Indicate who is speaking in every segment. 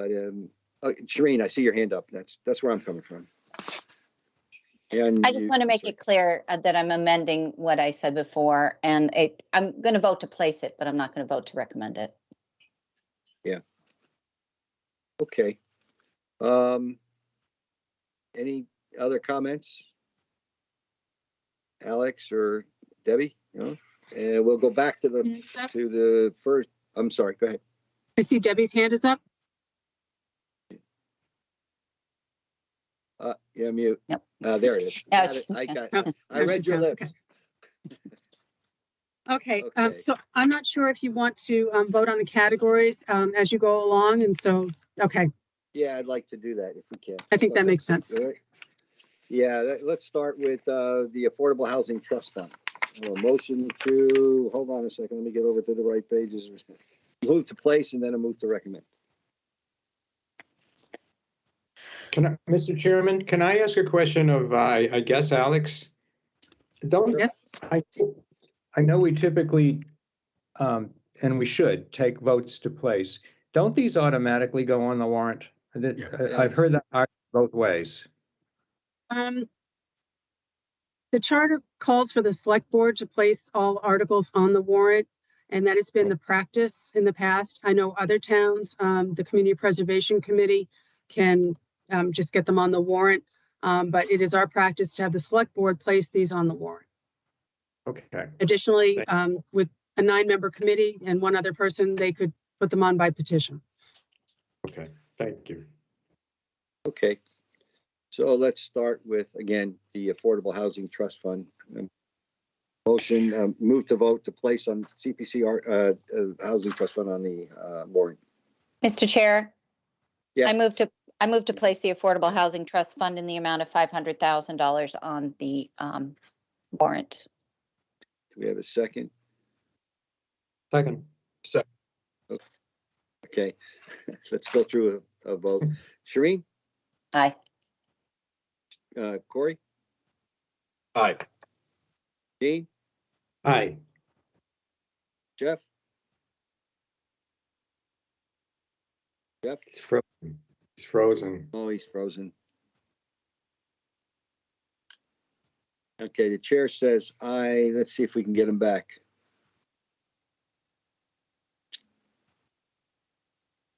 Speaker 1: um, uh, Shereen, I see your hand up. That's, that's where I'm coming from. And
Speaker 2: I just
Speaker 1: you-
Speaker 2: want to make it clear uh, that I'm amending what I said before, and it, I'm going to vote to place it, but I'm not going to vote to recommend it.
Speaker 1: Okay. Um, any other comments? Alex or Debbie? No? And we'll go back to the,
Speaker 3: Mm-hmm.
Speaker 1: to the first, I'm sorry, go ahead.
Speaker 3: I see Debbie's hand is up.
Speaker 1: Uh, yeah, mute.
Speaker 2: Yep.
Speaker 1: Uh, there it is. Got it.
Speaker 2: Ouch.
Speaker 1: I got,
Speaker 3: Oh,
Speaker 1: it. I
Speaker 3: there's
Speaker 1: read
Speaker 3: his
Speaker 1: your
Speaker 3: hand,
Speaker 1: lips.
Speaker 3: okay. Okay, um,
Speaker 1: Okay.
Speaker 3: so I'm not sure if you want to um, vote on the categories um, as you go along, and so, okay,
Speaker 1: Yeah, I'd like to do that if we can.
Speaker 3: I think that
Speaker 1: Okay.
Speaker 3: makes sense.
Speaker 1: All right. Yeah, let- let's start with uh, the Affordable Housing Trust Fund. A motion to, hold on a second, let me get over to the right pages. Move to place and then a move to recommend.
Speaker 4: Can I, Mr. Chairman, can I ask a question of, uh, I I guess, Alex? Don't,
Speaker 3: Yes,
Speaker 4: I, I know we typically, um, and we should, take votes to place. Don't these automatically go on the warrant? That-
Speaker 1: Yeah.
Speaker 4: I- I've heard that argument both ways.
Speaker 3: um, the charter calls for the select board to place all articles on the warrant, and that has been the practice in the past. I know other towns, um, the Community Preservation Committee can um, just get them on the warrant, um, but it is our practice to have the select board place these on the warrant.
Speaker 4: Okay,
Speaker 3: Additionally,
Speaker 4: Thank-
Speaker 3: um, with a nine-member committee and one other person, they could put them on by petition.
Speaker 4: okay, thank you.
Speaker 1: Okay. So let's start with, again, the Affordable Housing Trust Fund. Um, Motion, um, move to vote to place on CPCR, uh, uh, Housing Trust Fund on the uh, warrant.
Speaker 2: Mr. Chair?
Speaker 1: Yeah.
Speaker 2: I move to, I move to place the Affordable Housing Trust Fund in the amount of $500,000 on the um, warrant.
Speaker 1: Do we have a second?
Speaker 4: Second.
Speaker 1: Okay, let's go through a a vote. Shereen,
Speaker 2: Aye.
Speaker 1: uh, Corey,
Speaker 5: Aye.
Speaker 1: Dean,
Speaker 4: Aye.
Speaker 1: Jeff? Jeff?
Speaker 4: It's frozen. It's frozen.
Speaker 1: Oh, he's frozen. Okay, the chair says aye. Let's see if we can get him back.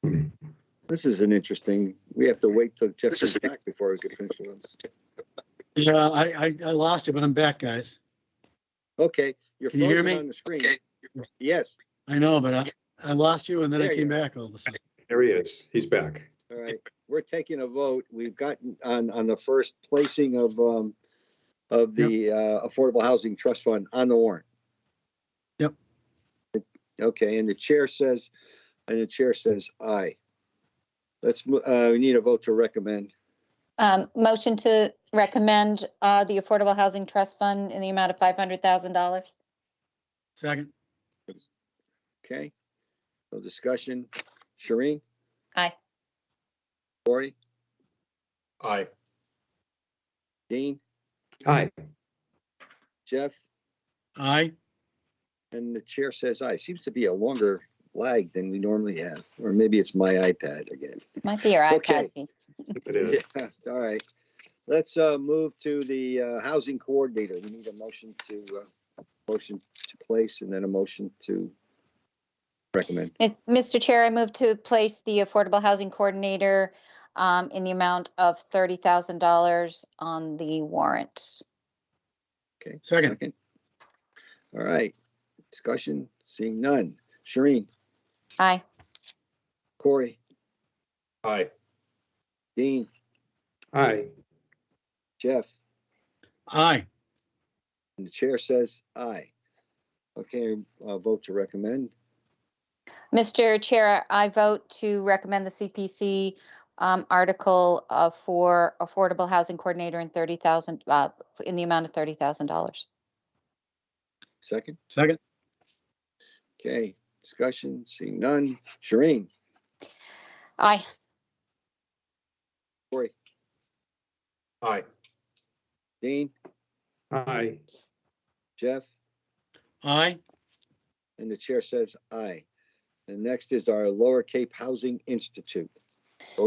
Speaker 4: Hmm.
Speaker 1: This is an interesting, we have to wait till Jeff is back before we can finish with this.
Speaker 6: Yeah, I, I, I lost it, but I'm back, guys.
Speaker 1: Okay, you're
Speaker 6: Can you hear
Speaker 1: frozen
Speaker 6: me?
Speaker 1: on the screen. Yes,
Speaker 6: I know, but I, I lost you and then I
Speaker 1: There you
Speaker 6: came
Speaker 1: are.
Speaker 6: back all of a sudden.
Speaker 4: There he is. He's back.
Speaker 1: all right. We're taking a vote. We've gotten on, on the first placing of, um, of the, uh, Affordable Housing Trust Fund on the warrant.
Speaker 6: Yep.
Speaker 1: Okay, and the chair says, and the chair says aye. Let's, mo- uh, we need a vote to recommend.
Speaker 2: Um, Motion to recommend uh, the Affordable Housing Trust Fund in the amount of $500,000.
Speaker 6: Second,
Speaker 1: Okay, no discussion. Shereen?
Speaker 2: Aye.
Speaker 1: Corey?
Speaker 5: Aye.
Speaker 1: Dean?
Speaker 4: Aye.
Speaker 1: Jeff?
Speaker 6: aye.
Speaker 1: And the chair says aye. Seems to be a longer lag than we normally have, or maybe it's my iPad again.
Speaker 2: Might be your
Speaker 1: Okay.
Speaker 2: iPad. Pete.
Speaker 4: It is.
Speaker 1: Yeah, All right. Let's uh, move to the uh, housing coordinator. We need a motion to, uh, motion to place and then a motion to recommend.
Speaker 2: Mis- Mr. Chair, I move to place the Affordable Housing Coordinator um, in the amount of $30,000 on the warrant.
Speaker 6: Second,
Speaker 1: Second. All right. Discussion, seeing none. Shereen,
Speaker 2: Aye.
Speaker 1: Corey,
Speaker 5: Aye.
Speaker 1: Dean,
Speaker 4: Aye.
Speaker 1: Jeff,
Speaker 6: aye.
Speaker 1: and the chair says aye. Okay, uh, vote to recommend.
Speaker 2: Mr. Chair, I vote to recommend the CPC um, article uh, for Affordable Housing Coordinator in 30,000, uh, in the amount of $30,000.
Speaker 1: Second.
Speaker 6: Second,
Speaker 1: Okay, discussion, seeing none. Shereen,
Speaker 2: Aye.
Speaker 1: Corey,
Speaker 5: Aye.
Speaker 1: Dean,
Speaker 4: Aye.
Speaker 1: Jeff,
Speaker 6: aye.
Speaker 1: and the chair says aye. And next is our Lower Cape Housing Institute.